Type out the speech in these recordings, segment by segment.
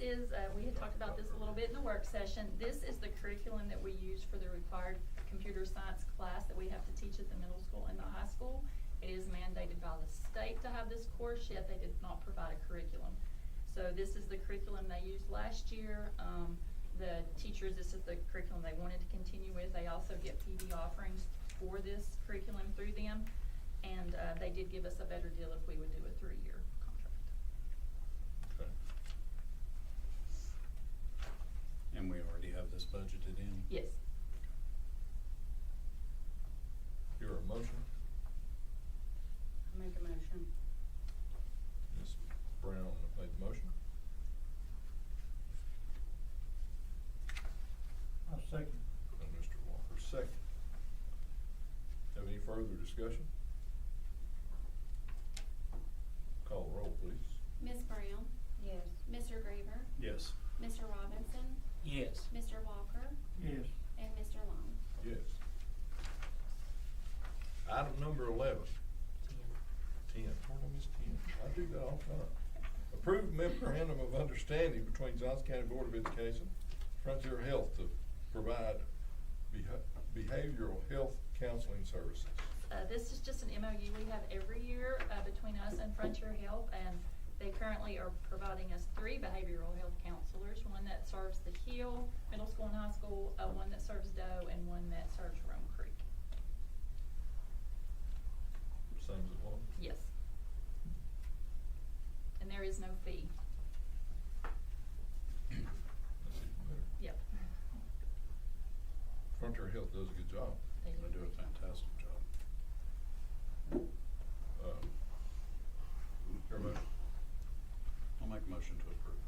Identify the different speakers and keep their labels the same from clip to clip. Speaker 1: is, uh, we had talked about this a little bit in the work session, this is the curriculum that we use for the required computer science class that we have to teach at the middle school and the high school. It is mandated by the state to have this course, yet they did not provide a curriculum. So this is the curriculum they used last year, um, the teachers, this is the curriculum they wanted to continue with, they also get PD offerings for this curriculum through them, and, uh, they did give us a better deal if we would do a three-year contract.
Speaker 2: Okay.
Speaker 3: And we already have this budgeted in?
Speaker 1: Yes.
Speaker 2: Hear a motion?
Speaker 4: Make a motion.
Speaker 2: Ms. Brown made the motion.
Speaker 5: I'll second.
Speaker 2: And Mr. Walker second. Have any further discussion? Call roll, please.
Speaker 6: Ms. Brown,
Speaker 4: Yes.
Speaker 6: Mr. Greaver,
Speaker 3: Yes.
Speaker 6: Mr. Robinson,
Speaker 7: Yes.
Speaker 6: Mr. Walker,
Speaker 5: Yes.
Speaker 6: and Mr. Long.
Speaker 2: Yes. Item number eleven. Ten, where did I miss ten? I do that all the time. Approved memorandum of understanding between Johnson County Board of Education, Frontier Health to provide beha- behavioral health counseling services.
Speaker 1: Uh, this is just an MOU we have every year, uh, between us and Frontier Health, and they currently are providing us three behavioral health counselors, one that serves the Hill Middle School and High School, uh, one that serves Doe, and one that serves Rome Creek.
Speaker 2: Same as it was.
Speaker 1: Yes. And there is no fee.
Speaker 2: That's even better.
Speaker 1: Yep.
Speaker 2: Frontier Health does a good job.
Speaker 1: They
Speaker 3: They do a fantastic job.
Speaker 2: Um, Hear a motion?
Speaker 3: I'll make a motion to approve.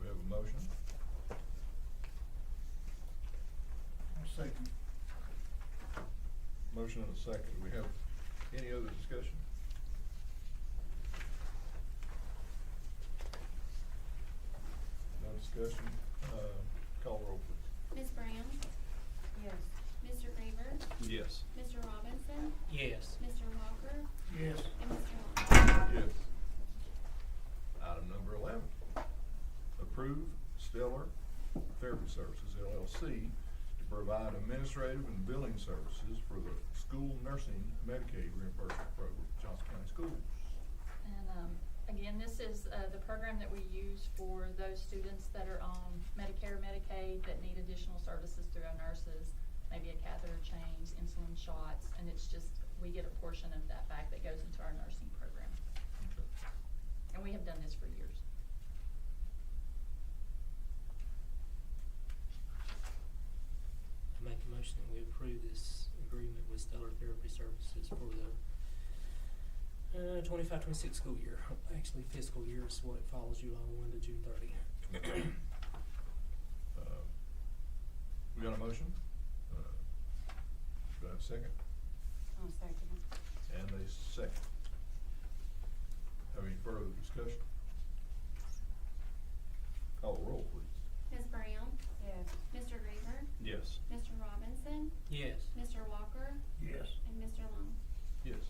Speaker 2: We have a motion.
Speaker 5: I'll second.
Speaker 2: Motion and a second. Do we have any other discussion? No discussion. Uh, Call roll, please.
Speaker 6: Ms. Brown,
Speaker 4: Yes.
Speaker 6: Mr. Greaver,
Speaker 3: Yes.
Speaker 6: Mr. Robinson,
Speaker 7: Yes.
Speaker 6: Mr. Walker,
Speaker 5: Yes.
Speaker 6: and Mr. Long.
Speaker 2: Yes. Item number eleven. Approve Stellar Therapy Services LLC to provide administrative and billing services for the school nursing Medicaid reimbursement program at Johnson County Schools.
Speaker 1: And, um, again, this is, uh, the program that we use for those students that are on Medicare, Medicaid, that need additional services through our nurses, maybe a catheter change, insulin shots, and it's just, we get a portion of that back that goes into our nursing program.
Speaker 2: Okay.
Speaker 1: And we have done this for years.
Speaker 7: I make a motion that we approve this agreement with Stellar Therapy Services for the uh, 25, 26 school year. Actually, fiscal year is what it follows July 1 to June 30.
Speaker 2: Uh, We got a motion? Uh, Do I have a second?
Speaker 4: I'll second it.
Speaker 2: And a second. Have any further discussion? Call the roll, please.
Speaker 6: Ms. Brown,
Speaker 4: Yes.
Speaker 6: Mr. Greaver,
Speaker 3: Yes.
Speaker 6: Mr. Robinson,
Speaker 7: Yes.
Speaker 6: Mr. Walker,
Speaker 5: Yes.
Speaker 6: and Mr. Long.
Speaker 2: Yes.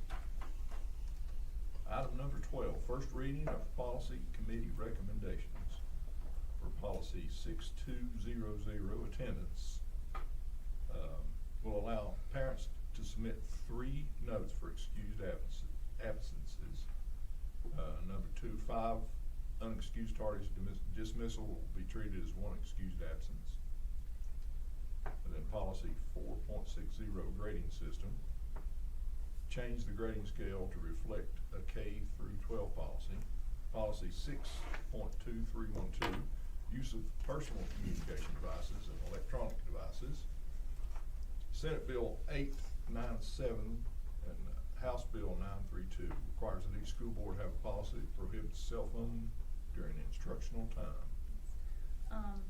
Speaker 2: Item number twelve, first reading of policy committee recommendations for policy six two zero zero attendance. Um, Will allow parents to submit three notes for excused absence- absences. Uh, number two, five unexcused tardies dismiss- dismissal will be treated as one excused absence. And then policy four point six zero grading system, change the grading scale to reflect a K through twelve policy. Policy six point two three one two, use of personal communication devices and electronic devices. Senate Bill eight nine seven and House Bill nine three two requires that each school board have a policy that prohibits cell phone during instructional time.
Speaker 1: Um,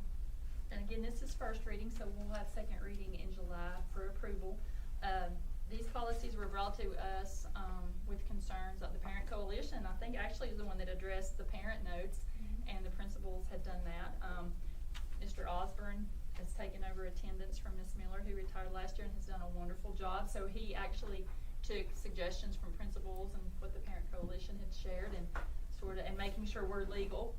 Speaker 1: and again, this is first reading, so we'll have second reading in July for approval. Um, these policies were brought to us, um, with concerns of the parent coalition. I think actually is the one that addressed the parent notes, and the principals had done that. Um, Mr. Osborne has taken over attendance from Ms. Miller, who retired last year and has done a wonderful job. So he actually took suggestions from principals and what the parent coalition had shared and sort of, and making sure we're legal